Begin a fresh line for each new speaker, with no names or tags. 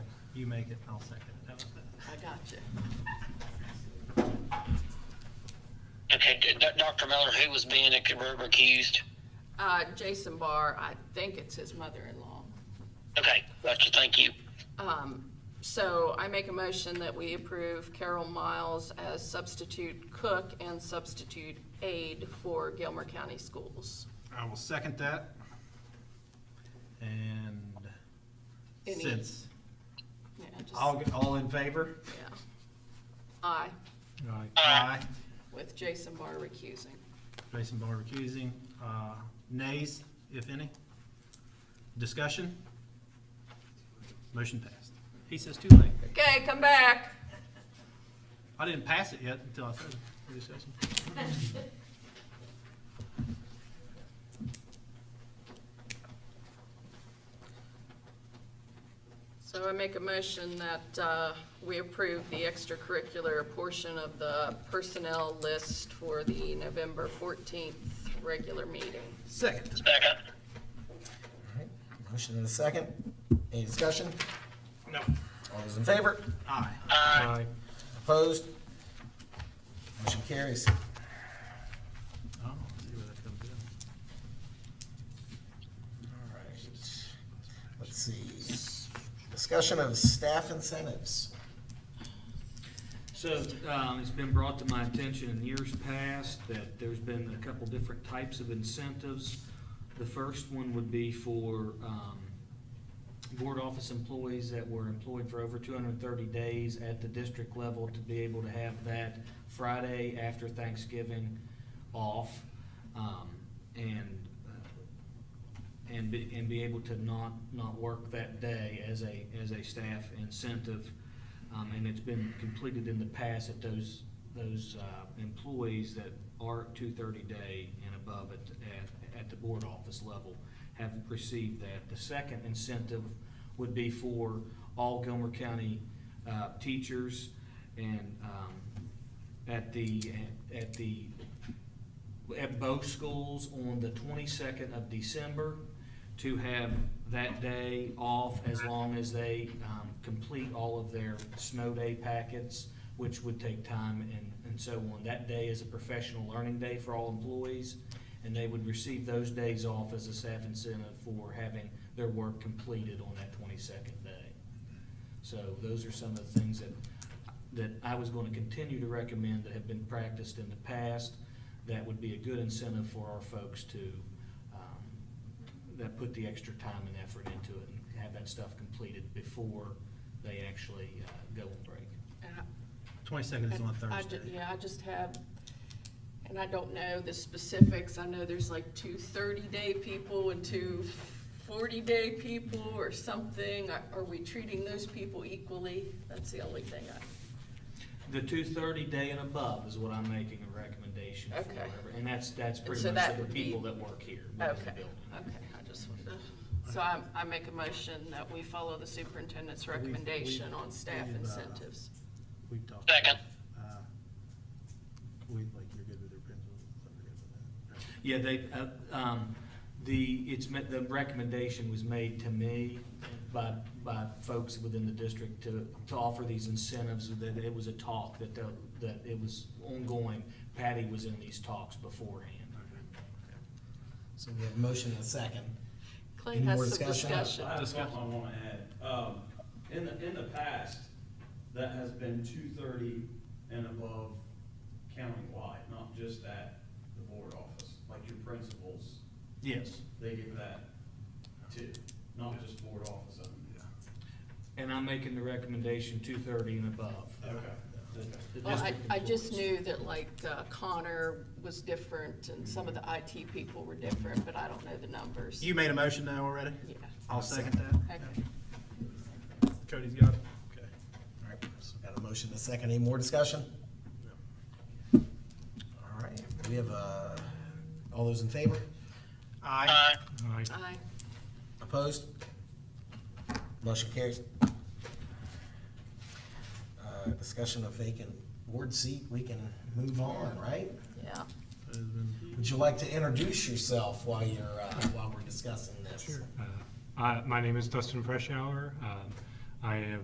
You make it, I'll second it. How about that?
I got you.
Okay, D- D- Dr. Miller, who was being ac- recused?
Uh, Jason Barr, I think it's his mother-in-law.
Okay, gotcha, thank you.
Um, so I make a motion that we approve Carol Miles as substitute cook and substitute aide for Gilmer County Schools.
I will second that. And
Any-
since,
Yeah, just-
all, all in favor?
yeah. Aye,
Aye.
with Jason Barr recusing.
Jason Barr recusing, uh, nays, if any. Discussion? Motion passed. He says too late.
Okay, come back.
I didn't pass it yet until I said it. Discussion.
So I make a motion that uh, we approve the extracurricular portion of the personnel list for the November 14th regular meeting.
Second.
Second.
Motion and a second. Any discussion?
No.
All those in favor?
Aye.
Aye.
Opposed? Motion carries.
Oh, let's see where that comes in.
All right. Let's see. Discussion of staff incentives.
So, um, it's been brought to my attention in years past that there's been a couple different types of incentives. The first one would be for, um, board office employees that were employed for over two hundred and thirty days at the district level to be able to have that Friday after Thanksgiving off. Um, and uh, and be, and be able to not, not work that day as a, as a staff incentive. Um, and it's been completed in the past that those, those, uh, employees that are two thirty day and above at, at, at the board office level have received that. The second incentive would be for all Gilmer County, uh, teachers and, um, at the, at the at both schools on the twenty-second of December to have that day off as long as they, um, complete all of their snow day packets, which would take time and, and so on. That day is a professional learning day for all employees, and they would receive those days off as a staff incentive for having their work completed on that twenty-second day. So those are some of the things that, that I was going to continue to recommend that have been practiced in the past. That would be a good incentive for our folks to, um, that put the extra time and effort into it and have that stuff completed before they actually uh, go on break.
Twenty-second is on
I- I ju-
Thursday.
Yeah, I just have, and I don't know the specifics, I know there's like two thirty-day people and two forty-day people or something. Are are we treating those people equally? That's the only thing I,
The two thirty day and above is what I'm making a recommendation for.
Okay.
And that's, that's
And
pretty
so
much
that
the
would be-
people that work here within the
okay,
building.
okay, I just wanted to, so I, I make a motion that we follow the superintendent's
We've- we've-
recommendation on staff
we've, uh,
incentives.
We talked.
Second.
Uh, We, like, you're good with your pencil. so we're good with that.
Yeah, they, uh, um, the, it's, ma- the recommendation was made to me by, by folks within the district to, to offer these incentives, that it was a talk, that, the- that it was ongoing. Patty was in these talks beforehand.
So we have a motion and a second.
Clay
Any more
has some
discussion?
discussion.
I have something I wanna add. Um, in the, in the past, that has been two thirty and above countywide, not just at the board office. Like your principals,
Yes.
they give that too, not just board office.
And I'm making the recommendation two thirty and above.
Okay.
The
Well, I,
district
I just
employees.
knew that like uh, Connor was different and some of the IT people were different, but I don't know the numbers.
You made a motion now already?
Yeah,
I'll second that.
okay.
Cody's got it? Okay.
All right, so got a motion and a second. Any more discussion? All right, we have, uh, all those in favor?
Aye.
Aye.
I,
Opposed? Motion carries. Uh, Discussion of vacant board seat, we can move on, right?
yeah,
Has been-
Would you like to introduce yourself while you're, uh, while we're discussing this?
Uh, I- My name is Dustin Freshour. Um, I am